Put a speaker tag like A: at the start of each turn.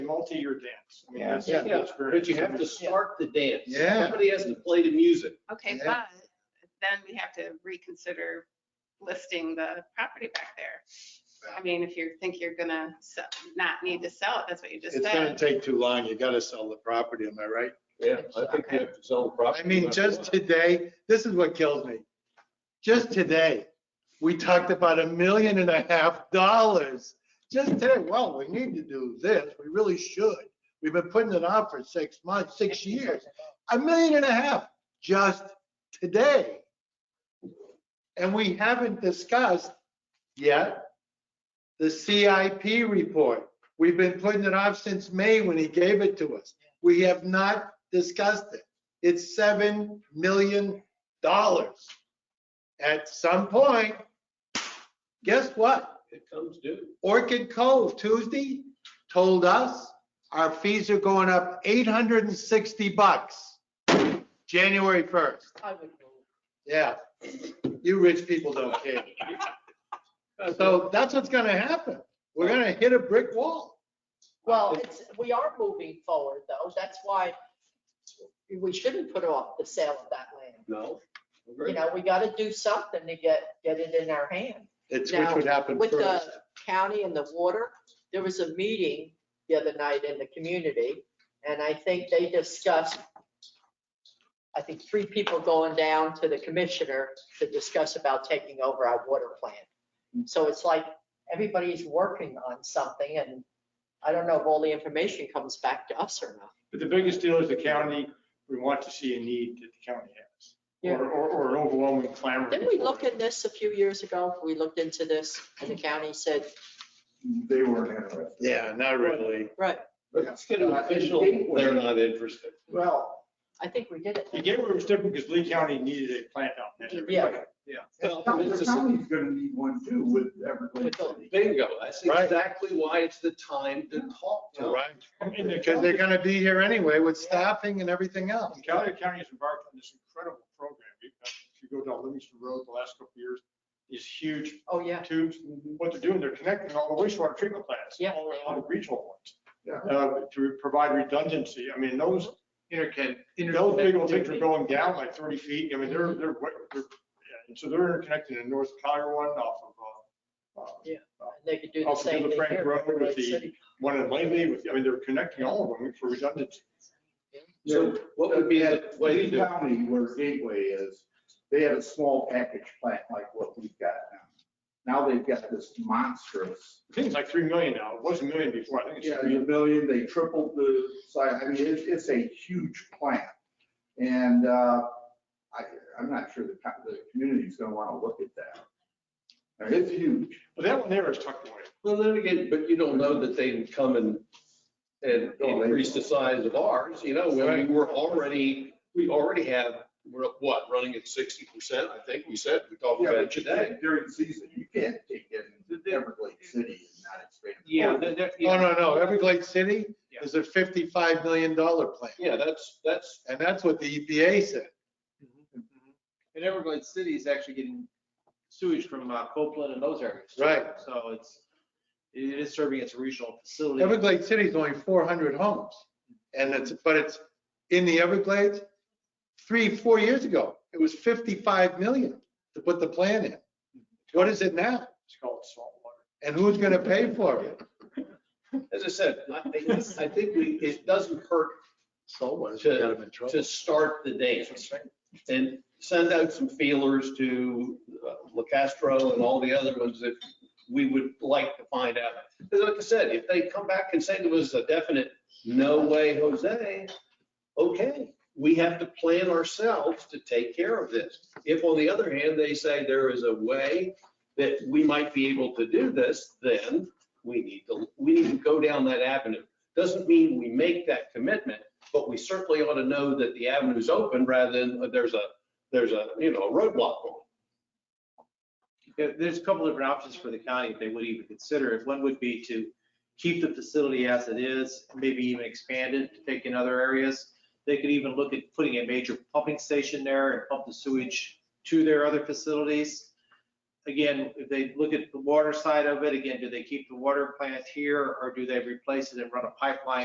A: multi-year dance. I mean, that's,
B: Yeah.
A: that's very.
C: But you have to start the dance.
B: Yeah.
C: Somebody has to play the music.
D: Okay,
B: Yeah.
D: but then we have to reconsider listing the property back there. I mean, if you think you're gonna sell, not need to sell it, that's what you just
E: It's gonna
D: said.
E: take too long. You gotta sell the property, am I right?
C: Yeah, I think you have to sell the property.
E: I mean, just today, this is what kills me. Just today, we talked about a million and a half dollars. Just today, well, we need to do this. We really should. We've been putting it off for six months, six years. A million and a half just today. And we haven't discussed yet the CIP report. We've been putting it off since May when he gave it to us. We have not discussed it. It's seven million dollars. At some point, guess what?
C: It comes due.
E: Orchid Cove Tuesday told us our fees are going up eight hundred and sixty bucks, January first. Yeah, you rich people don't care. So that's what's gonna happen. We're gonna hit a brick wall.
F: Well, it's, we are moving forward though. That's why we shouldn't put off the sale of that land.
C: No.
F: You know, we gotta do something to get, get it in our hand.
E: It's which
F: Now,
E: would happen
F: With the
E: first.
F: county and the water, there was a meeting the other night in the community and I think they discussed, I think three people going down to the commissioner to discuss about taking over our water plant. So it's like everybody's working on something and I don't know if all the information comes back to us or not.
A: But the biggest deal is the county, we want to see a need that the county has.
F: Yeah.
A: Or, or, or an overwhelming clamor.
F: Didn't we look at this a few years ago? We looked into this and the county said,
B: They weren't interested.
E: Yeah, not really.
F: right,
C: Let's get an official, they're not interested.
B: Well,
F: I think we did it.
A: The gateway was different because Lee County needed a plant out there.
F: Yeah.
C: Well,
B: the
C: it's a-
B: county's gonna need one too with
F: With
B: Everglades.
F: the-
B: City.
C: Bingo. That's
E: Right.
C: exactly why it's the time to talk to them.
E: Right,
A: And the
E: because
A: county,
E: they're gonna be here anyway with staffing and everything else.
A: and Callaway County has embarked on this incredible program. We've got- If you go down Livingston Road the last couple of years, these huge
F: Oh, yeah.
A: tubes. What they're doing, they're connecting all the wastewater treatment plants.
F: Yeah.
A: All the- all the regional ones.
B: Yeah.
A: uh, To provide redundancy. I mean, those,
E: Interconnect.
A: those big old things are going down like 30 feet. I mean, they're, they're, they're- yeah, and so they're interconnected in North Collier one off of, uh, uh,
F: They could do the
A: Also do
F: same
A: the
F: thing
A: Frank
F: here.
A: Road with
F: Everglades
A: the-
F: City.
A: one in Langley with, I mean, they're connecting all of them for redundancy.
C: So what would be the way to
B: uh, Lee
C: do it?
B: County, where Gateway is, they had a small package plant like what we've got now. Now they've got this monstrous,
A: I think it's like 3 million now. It was a million before. I think it's
B: yeah,
A: 3
B: a
A: million.
B: million, they tripled the size. I mean, it's, it's a huge plant. And, uh, I, I'm not sure the, co- the community's gonna wanna look at that. I mean, It's huge.
A: But that one there is tucked away.
C: Well, then again, but you don't know that they can come and, and
G: Oh,
C: increase the size of ours, you know, I mean, we're already, we already have, we're at what, running at sixty percent, I think we said, we talked
B: Yeah,
C: about it
B: but you
C: today.
B: can't- During season, you can't take it into Everglades City and not expand. it.
C: Oh.
E: No, no, no, Everglades City is a $55 million plant,
C: Yeah, that's, that's,
E: and that's what the EPA said.
G: And Everglades City is actually getting sewage from uh, Copeland and those areas.
E: Right.
G: So it's, it is serving as a regional facility.
E: Everglades City is only 400 homes, and it's, but it's in the Everglades. Three, four years ago, it was 55 million to put the plant in. What is it now?
A: It's called saltwater.
E: And who's going to pay for it?
C: as I said, I think, I think we, it doesn't hurt
B: Someone's
C: got
B: in
C: to start the dance and send out some feelers to uh, La Castro and all the other ones that we would like to find out. Because like I said, if they come back and say there was a definite, no way, Jose, okay, we have to plan ourselves to take care of this. If on the other hand, they say there is a way that we might be able to do this, then we need to, we need to go down that avenue. Doesn't mean we make that commitment, but we certainly ought to know that the avenue's open rather than uh, there's a, there's a, you know, a roadblock on.
G: There- There's a couple different options for the county if they would even consider it. One would be to keep the facility as it is, maybe even expand it to take in other areas. They could even look at putting a major pumping station there and pump the sewage to their other facilities. Again, if they look at the water side of it, again, do they keep the water plant here or do they replace it and run a pipeline